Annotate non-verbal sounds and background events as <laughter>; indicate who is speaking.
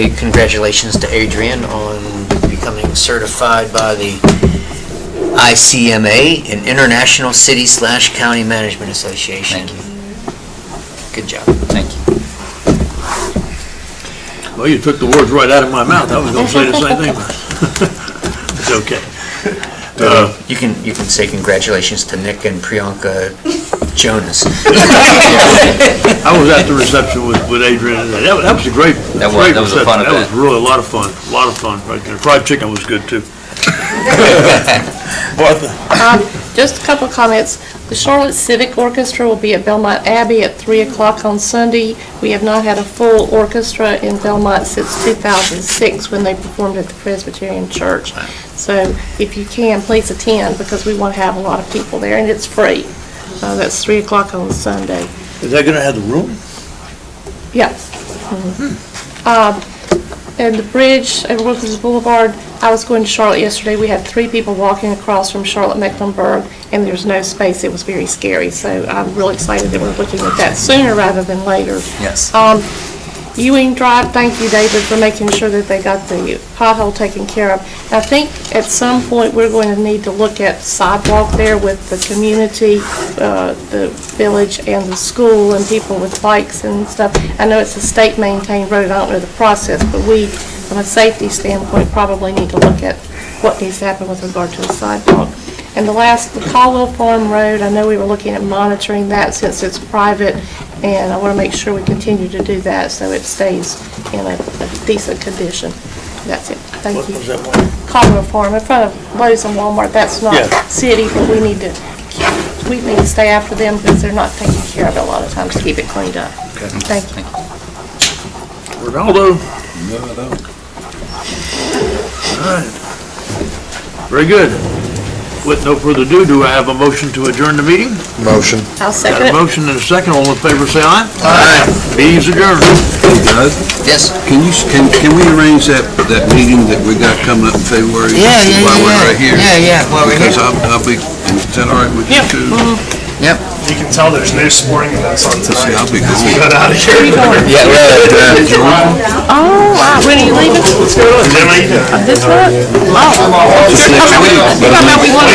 Speaker 1: Congratulations to Adrian on becoming certified by the ICMA, an International City slash County Management Association.
Speaker 2: Thank
Speaker 1: you. Good job.
Speaker 2: Thank you.
Speaker 3: Well, you took the words right out of my mouth. I was going to say the same thing. <laughs> but It's okay. Uh,
Speaker 1: You can, you can say congratulations to Nick and Priyanka Jonas.
Speaker 3: I was at the reception with, with Adrian. and That that was a great,
Speaker 2: That was-
Speaker 3: great
Speaker 2: that was a fun
Speaker 3: reception. That was
Speaker 2: event.
Speaker 3: really a lot of fun, a lot of fun right there. Fried chicken was good
Speaker 2: <laughs>
Speaker 3: too. Martha?
Speaker 4: Just a couple of comments. The Charlotte Civic Orchestra will be at Belmont Abbey at 3 o'clock on Sunday. We have not had a full orchestra in Belmont since 2006, when they performed at the Presbyterian Church. So if you can, please attend, because we want to have a lot of people there, and it's free. Uh, That's 3 o'clock on Sunday.
Speaker 3: Is that going to have the room?
Speaker 4: Yeah. Um, And the bridge at Wilkins Boulevard, I was going to Charlotte yesterday, we had three people walking across from Charlotte Mecklenburg, and there's no space, it was very scary, so I'm really excited that we're looking at that sooner rather than later.
Speaker 2: Yes.
Speaker 4: Um, Ewing Drive, thank you, David, for making sure that they got the pothole taken care of. I think at some point, we're going to need to look at sidewalk there with the community, uh, the village and the school and people with bikes and stuff. I know it's a state-maintained road, I don't know the process, but we, from a safety standpoint, probably need to look at what needs to happen with regard to the sidewalk. And the last, the Caldwell Farm Road, I know we were looking at monitoring that since it's private, and I want to make sure we continue to do that so it stays in a a decent condition. That's it. Thank
Speaker 3: What was
Speaker 4: you.
Speaker 3: that one?
Speaker 4: Caldwell Farm, in front of Lowe's and Walmart, that's not
Speaker 3: Yeah.
Speaker 4: city, but we need to, we need to stay after them because they're not taking care of it a lot of times to keep it cleaned up. Thank you.
Speaker 3: Ronaldo? All right. Very good. With no further ado, do I have a motion to adjourn the meeting?
Speaker 5: Motion.
Speaker 4: I'll second
Speaker 3: Got a
Speaker 4: it.
Speaker 3: motion and a second. All in favor, say aye. Aye. Meeting's adjourned.
Speaker 5: Doug,
Speaker 1: Yes.
Speaker 5: can you, can, can we arrange that, that meeting that we got coming up in February?
Speaker 1: Yeah, yeah,
Speaker 5: While
Speaker 1: yeah,
Speaker 5: we're
Speaker 1: yeah.
Speaker 5: right here?
Speaker 1: Yeah, yeah, while we're
Speaker 5: Because
Speaker 1: here.
Speaker 5: I'll, I'll be, is that all right with you two?
Speaker 1: Yep.
Speaker 6: You can tell there's no sporting events on
Speaker 5: See,
Speaker 6: tonight.
Speaker 5: I'll be gone.
Speaker 3: 啊
Speaker 6: Get out of here.
Speaker 1: Yeah,
Speaker 4: Oh, wow, when are you leaving?
Speaker 6: Jim, how you doing?
Speaker 4: This one? Oh. You're talking about- you're talking about we want